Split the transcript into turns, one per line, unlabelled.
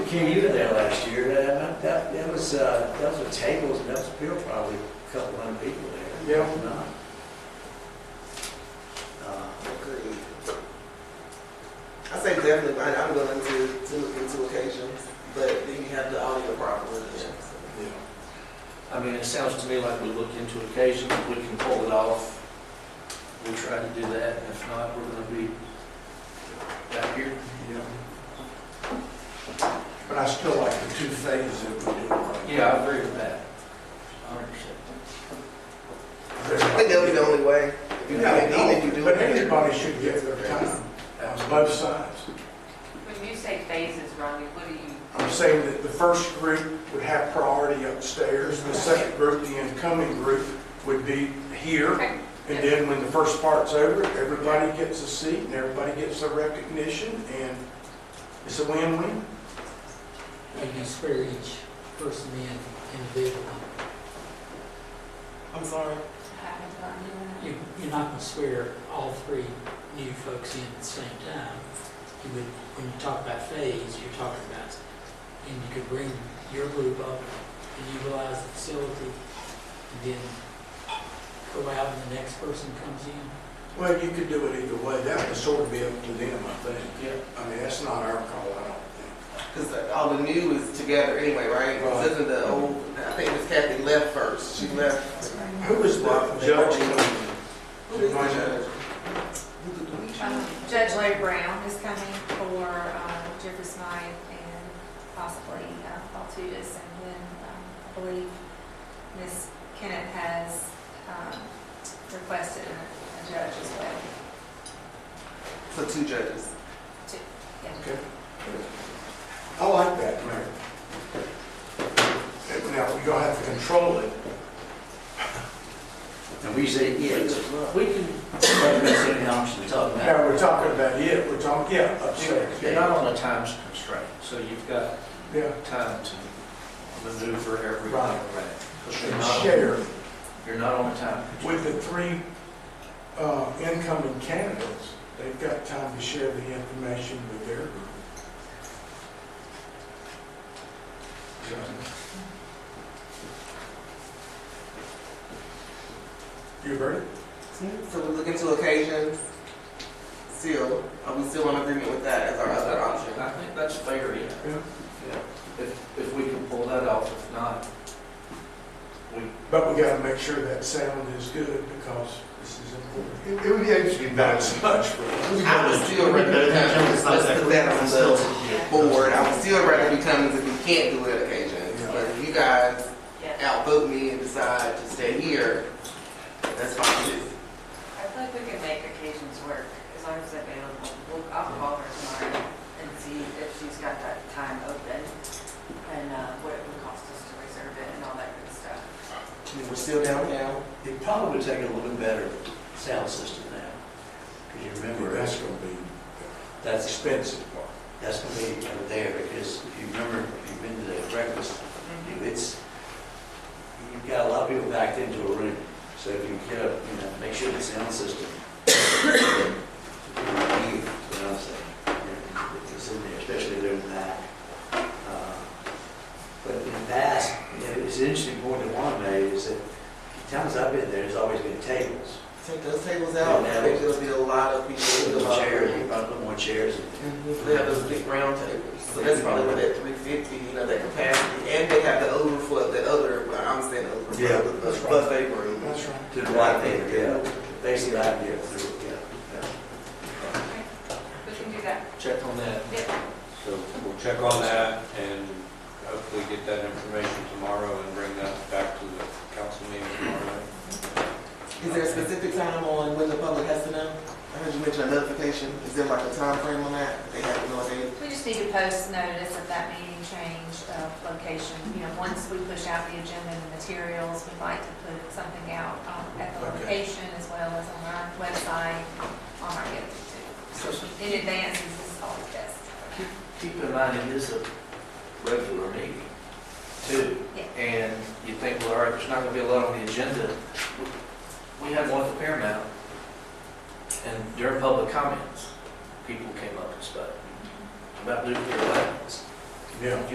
Ken, you were there last year, Uh, that, that, that was, uh, those were tables, and that was still probably a couple hundred people there.
Yeah.
If not. Uh,
Agreed. I say definitely, but I'm willing to, to look into occasions, but then you have the audio problem again.
I mean, it sounds to me like we look into occasions, if we can pull it off, we'll try to do that, and if not, we're gonna be back here.
But I still like the two things that we do.
Yeah, I agree with that. Hundred percent.
I think that'll be the only way. If you have a need, if you do.
But everybody should give their time on both sides.
When you say phases, Ronnie, what do you,
I'm saying that the first group would have priority upstairs, the second group, the incoming group, would be here.
okay,
And then when the first part's over, everybody gets a seat and everybody gets their recognition and it's a win-win.
And you swear each person in individually.
I'm sorry.
You, you're not gonna swear all three new folks in at the same time. You would, when you talk about phase, you're talking about, and you could bring your group up and utilize the facility, and then go out and the next person comes in.
Well, you could do it either way. That would sort of be up to them, I think.
Yeah.
I mean, that's not our call, I don't think.
Because all the new is together anyway, right?
Right.
This is the old, I think Miss Kathy left first, she left.
Who was the judge?
Who is the judge?
Um, Judge Larry Brown is coming for um, Jeffrey Smythe and possibly uh, Paul Tudis. And then um, I believe Ms. Kennett has um, requested a a judge as well.
So two judges.
I like that, Mayor. Now, you're gonna have to control it.
And we say, yeah, it's-
We can, there's any option to talk about.
Now, we're talking about it, we're talking, yeah, upstairs.
You're not on a time constraint, so you've got
Yeah,
time to maneuver everything
Right.
around. 'Cause you're
and
not on-
share
You're not on a time constraint.
with the three uh, incoming candidates. They've got time to share the information with their group. You heard it?
So we look into occasions. Still, are we still in agreement with that as our other option?
I think that's fair, yeah.
Yeah.
Yeah. If, if we can pull that off, if not,
But we gotta make sure that sound is good because this is important.
It it would be actually
Not
better.
as much for us.
I would still
Better
recommend
than Cummins, not
let's
that
put
quick.
that on
Still,
the
yeah.
board. I would still rather be Cummins if we can't do it occasions. But if you guys
yeah.
outvote me and decide to stay here, that's fine too.
I feel like we can make occasions work, as long as available. We'll, I'll call her tomorrow and see if she's got that time open and uh, what it would cost us to reserve it and all that good stuff.
And We're still downtown.
it probably would take a little bit better sound system now. Cause you remember,
That's
that's,
gonna be
that's
expensive part.
That's gonna be over there, because if you remember, if you've been to the breakfast, you- it's, you've got a lot of people backed into a room, so if you get up, you know, make sure the sound system. That's what I'm saying, it's in there, especially there in that. Uh, But in that, you know, it's an interesting point that Juan made, is that the times I've been there, there's always been tables.
Take those tables out.
Yeah.
I think there'll be a lot of people. in the
Little chairs,
lobby.
you probably put more chairs in there.
They have those big round tables, so that's probably where that three fifty, you know, that capacity, and they have the overflow, the other, well, I'm saying overflow,
Yeah,
the
that's right.
buffet room.
That's right.
To the right there, yeah, basically right there, through, yeah.
We can do that.
check on that.
So we'll check on that and hopefully get that information tomorrow and bring that back to the council meeting tomorrow.
Is there a specific time on when the public has to know? I heard you mention a notification, is there like a time frame on that? They have no idea.
We just need to post notice of that meeting change of location. You know, once we push out the agenda and the materials, we'd like to put something out um, at the
Okay.
location as well as on our website, on our YouTube. So in advance, this is always best.
Keep- Keep in mind, it is a regular meeting, too.
Yeah.
And you think, well, all right, there's not going to be a lot on the agenda. We had one at the Paramount, and during public comments, people came up and spoke about nuclear weapons.
Yeah.